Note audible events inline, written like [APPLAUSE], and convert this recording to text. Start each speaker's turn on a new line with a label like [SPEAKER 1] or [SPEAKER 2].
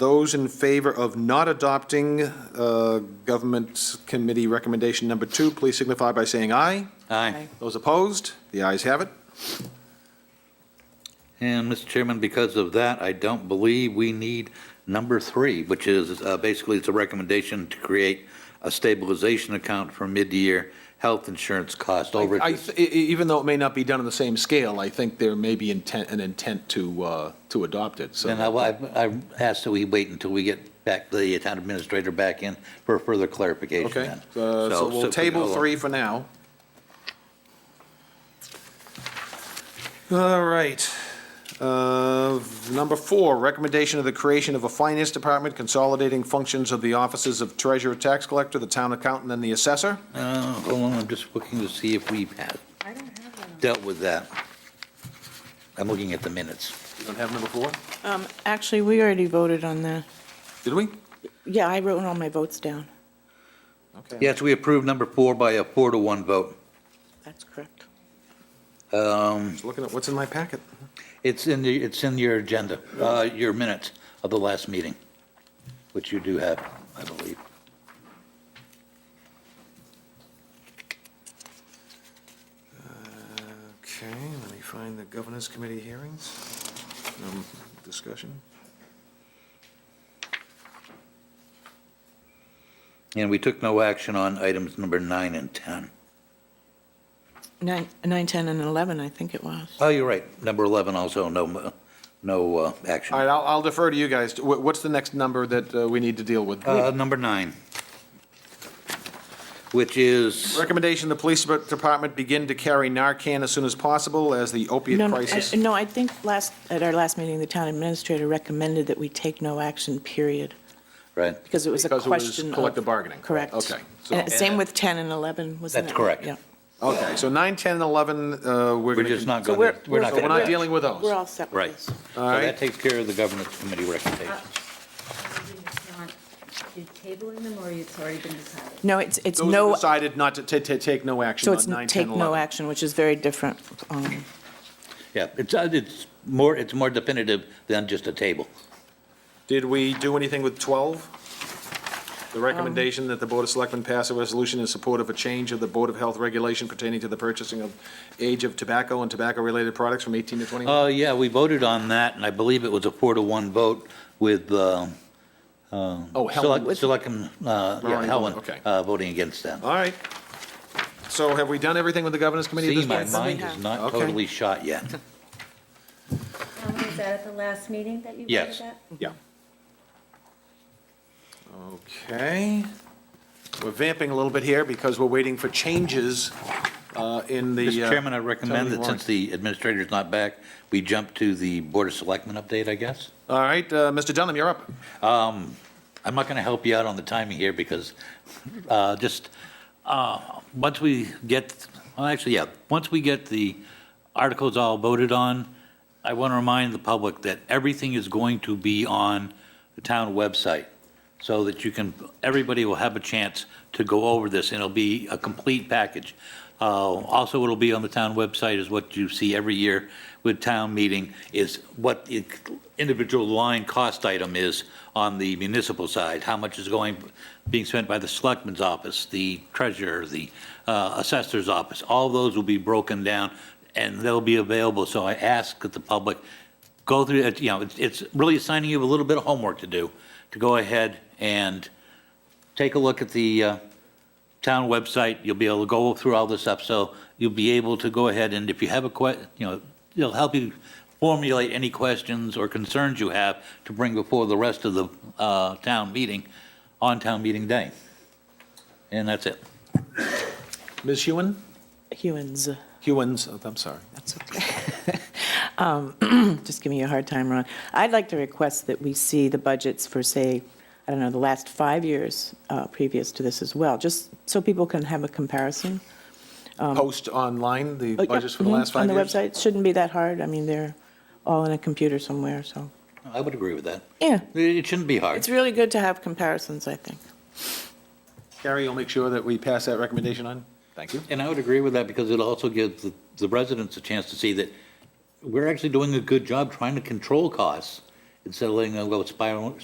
[SPEAKER 1] Those in favor of not adopting uh, Government Committee Recommendation Number Two, please signify by saying aye.
[SPEAKER 2] Aye.
[SPEAKER 1] Those opposed, the ayes have it.
[SPEAKER 2] And, Mr. Chairman, because of that, I don't believe we need number three, which is, uh, basically, it's a recommendation to create a stabilization account for mid-year health insurance cost
[SPEAKER 1] I-
[SPEAKER 2] overages.
[SPEAKER 1] I- e- Even though it may not be done on the same scale, I think there may be intent, an intent to, uh, to adopt it, so.
[SPEAKER 2] And I, I I asked that we wait until we get back, the town administrator back in for further clarification
[SPEAKER 1] Okay,
[SPEAKER 2] then.
[SPEAKER 1] uh, so we'll table three for now. All right. Uh, Number four, recommendation of the creation of a finance department consolidating functions of the offices of treasurer, tax collector, the town accountant, and the assessor.
[SPEAKER 2] Uh, hold on, I'm just looking to see if we've had,
[SPEAKER 3] I don't have that.
[SPEAKER 2] dealt with that. I'm looking at the minutes.
[SPEAKER 1] You don't have number four?
[SPEAKER 3] Um, actually, we already voted on that.
[SPEAKER 1] Did we?
[SPEAKER 3] Yeah, I wrote all my votes down.
[SPEAKER 1] Okay.
[SPEAKER 2] Yes, we approved number four by a four to one vote.
[SPEAKER 3] That's correct.
[SPEAKER 2] Um,
[SPEAKER 1] Just looking at what's in my packet.
[SPEAKER 2] It's in the, it's in your agenda, uh, your minutes of the last meeting, which you do have, I believe.
[SPEAKER 1] Okay, let me find the governance committee hearings, um, discussion.
[SPEAKER 2] And we took no action on items number nine and 10.
[SPEAKER 3] Nine, nine, 10, and 11, I think it was.
[SPEAKER 2] Oh, you're right, number 11 also, no, uh, no uh,
[SPEAKER 1] All
[SPEAKER 2] action.
[SPEAKER 1] right, I'll I'll defer to you guys. Wh- What's the next number that uh, we need to deal with?
[SPEAKER 2] Uh, Number nine, which is,
[SPEAKER 1] Recommendation, the police department begin to carry Narcan as soon as possible as the
[SPEAKER 3] No,
[SPEAKER 1] opiate
[SPEAKER 3] no,
[SPEAKER 1] crisis.
[SPEAKER 3] I- No, I think last, at our last meeting, the town administrator recommended that we take no action, period,
[SPEAKER 2] right,
[SPEAKER 3] because it was a
[SPEAKER 1] Because it was
[SPEAKER 3] question of...
[SPEAKER 1] collective bargaining.
[SPEAKER 3] Correct.
[SPEAKER 1] Okay, so-
[SPEAKER 3] And Same with 10 and 11, wasn't it?
[SPEAKER 2] That's correct.
[SPEAKER 3] Yeah.
[SPEAKER 1] Okay, so 9, 10, and 11, uh, we're
[SPEAKER 2] we're
[SPEAKER 1] going to...
[SPEAKER 2] just not
[SPEAKER 3] So
[SPEAKER 2] going
[SPEAKER 3] we're-
[SPEAKER 2] to, we're not
[SPEAKER 1] So
[SPEAKER 2] going to.
[SPEAKER 1] we're not dealing with those?
[SPEAKER 3] We're all set with
[SPEAKER 2] Right.
[SPEAKER 3] this.
[SPEAKER 2] So
[SPEAKER 1] right.
[SPEAKER 2] that takes care of the governance committee
[SPEAKER 1] Uh,
[SPEAKER 2] recommendations.
[SPEAKER 4] You're tabling them, or it's already been decided?
[SPEAKER 3] No, it's, it's
[SPEAKER 1] Those who
[SPEAKER 3] no,
[SPEAKER 1] decided not to ta- ta- take no action
[SPEAKER 3] so it's
[SPEAKER 1] on 9,
[SPEAKER 3] n-
[SPEAKER 1] 10,
[SPEAKER 3] take
[SPEAKER 1] and
[SPEAKER 3] no
[SPEAKER 1] 11.
[SPEAKER 3] action, which is very different. um,
[SPEAKER 2] Yeah, it's, uh, it's more, it's more definitive than just a table.
[SPEAKER 1] Did we do anything with 12? The
[SPEAKER 3] Um.
[SPEAKER 1] recommendation that the Board of Selectmen pass a resolution in support of a change of the Board of Health regulation pertaining to the purchasing of age of tobacco and tobacco-related products from 18 to 21?
[SPEAKER 2] Uh, yeah, we voted on that, and I believe it was a four to one vote with, uh, uh,
[SPEAKER 1] Oh, Helen.
[SPEAKER 2] Select- Selectmen, uh, yeah,
[SPEAKER 1] Ronnie
[SPEAKER 2] Helen,
[SPEAKER 1] Bowman, okay.
[SPEAKER 2] uh, voting against that.
[SPEAKER 1] All right. So have we done everything with the governance committee at
[SPEAKER 2] See,
[SPEAKER 1] this
[SPEAKER 2] my
[SPEAKER 1] point?
[SPEAKER 2] mind is
[SPEAKER 3] have.
[SPEAKER 2] not
[SPEAKER 1] Okay.
[SPEAKER 2] totally shot yet.
[SPEAKER 4] Um, Was that at the last meeting that you
[SPEAKER 2] Yes.
[SPEAKER 4] voted that?
[SPEAKER 1] Yeah. Okay. We're vamping a little bit here because we're waiting for changes uh, in the.
[SPEAKER 2] Mr.
[SPEAKER 1] uh,
[SPEAKER 2] Chairman, I recommend
[SPEAKER 1] town
[SPEAKER 2] that
[SPEAKER 1] warrant.
[SPEAKER 2] since the administrator's not back, we jump to the Board of Selectmen update, I guess.
[SPEAKER 1] All right, uh, Mr. Dunham, you're up.
[SPEAKER 2] Um, I'm not going to help you out on the timing here because uh, just, uh, once we get, well, actually, yeah, once we get the articles all voted on, I want to remind the public that everything is going to be on the town website so that you can, everybody will have a chance to go over this and it'll be a complete package. Uh, Also, it'll be on the town website is what you see every year with town meeting is what the individual line cost item is on the municipal side, how much is going, being spent by the selectman's office, the treasurer, the uh, assessor's office. All those will be broken down and they'll be available. So I ask that the public go through, it. you know, it's- it's really assigning you a little bit of homework to do, to go ahead and take a look at the uh, town website. You'll be able to go through all this stuff, so you'll be able to go ahead and if you have a que, you know, it'll help you formulate any questions or concerns you have to bring before the rest of the uh, town meeting on town meeting day. And that's it.
[SPEAKER 1] Ms. Hewen?
[SPEAKER 3] Hewens.
[SPEAKER 1] Hewens, oh, I'm sorry.
[SPEAKER 3] That's okay. [LAUGHS] Um, [CLEARS THROAT] Just giving you a hard time, Ron. I'd like to request that we see the budgets for, say, I don't know, the last five years uh, previous to this as well, just so people can have a comparison.
[SPEAKER 1] Post online the
[SPEAKER 3] But, Um, yeah,
[SPEAKER 1] budgets for the
[SPEAKER 3] mhm,
[SPEAKER 1] last five years?
[SPEAKER 3] On the website, shouldn't be that hard. I mean, they're all in a computer somewhere, so,
[SPEAKER 2] I would agree with that.
[SPEAKER 3] yeah.
[SPEAKER 2] It it shouldn't be hard.
[SPEAKER 3] It's really good to have comparisons, I think.
[SPEAKER 1] Carrie, you'll make sure that we pass that recommendation on? Thank you.
[SPEAKER 2] And I would agree with that because it also gives the- the residents a chance to see that we're actually doing a good job trying to control costs instead of letting them go spiral,